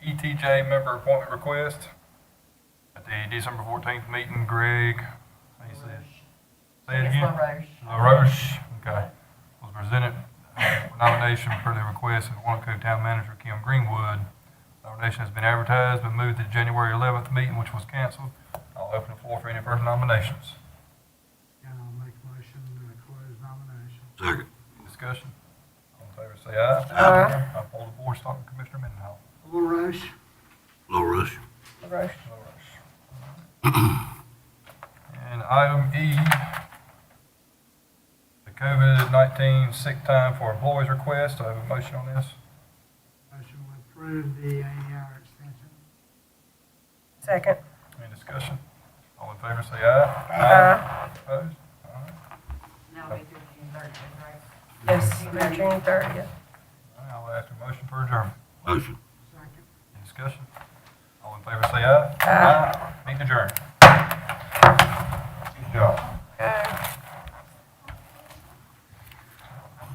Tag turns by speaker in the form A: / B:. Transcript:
A: TJ E member appointment request at the December fourteenth meeting, Greg, how you say it? Say it
B: It's
A: again?
B: LaRoche.
A: LaRoche, okay, was presented uh, nomination for the request of Wanaco Town Manager Kim Greenwood. Nomination has been advertised, but moved to the January eleventh meeting, which was canceled. I'll open the floor for any further nominations.
C: And I'll make a motion to close nominations.
D: Second.
A: Discussion? All in favor, say aye.
B: Aye.
A: I poll the board, starting with Commissioner Mendenhall.
C: LaRoche,
D: LaRoche.
B: LaRoche.
A: And item E, the COVID-19 sick time for employees request. Do I have a motion on this?
C: motion to approve the AER extension.
B: Second.
A: Any discussion? All in favor, say aye.
B: Aye.
A: Opposed? All right.
E: Now we do June thirtieth, right?
B: Yes, through June thirtieth.
A: All right, I'll ask for a motion for adjournment.
D: Motion.
C: Second.
A: Any discussion? All in favor, say aye.
B: Aye.
A: Meet adjourned.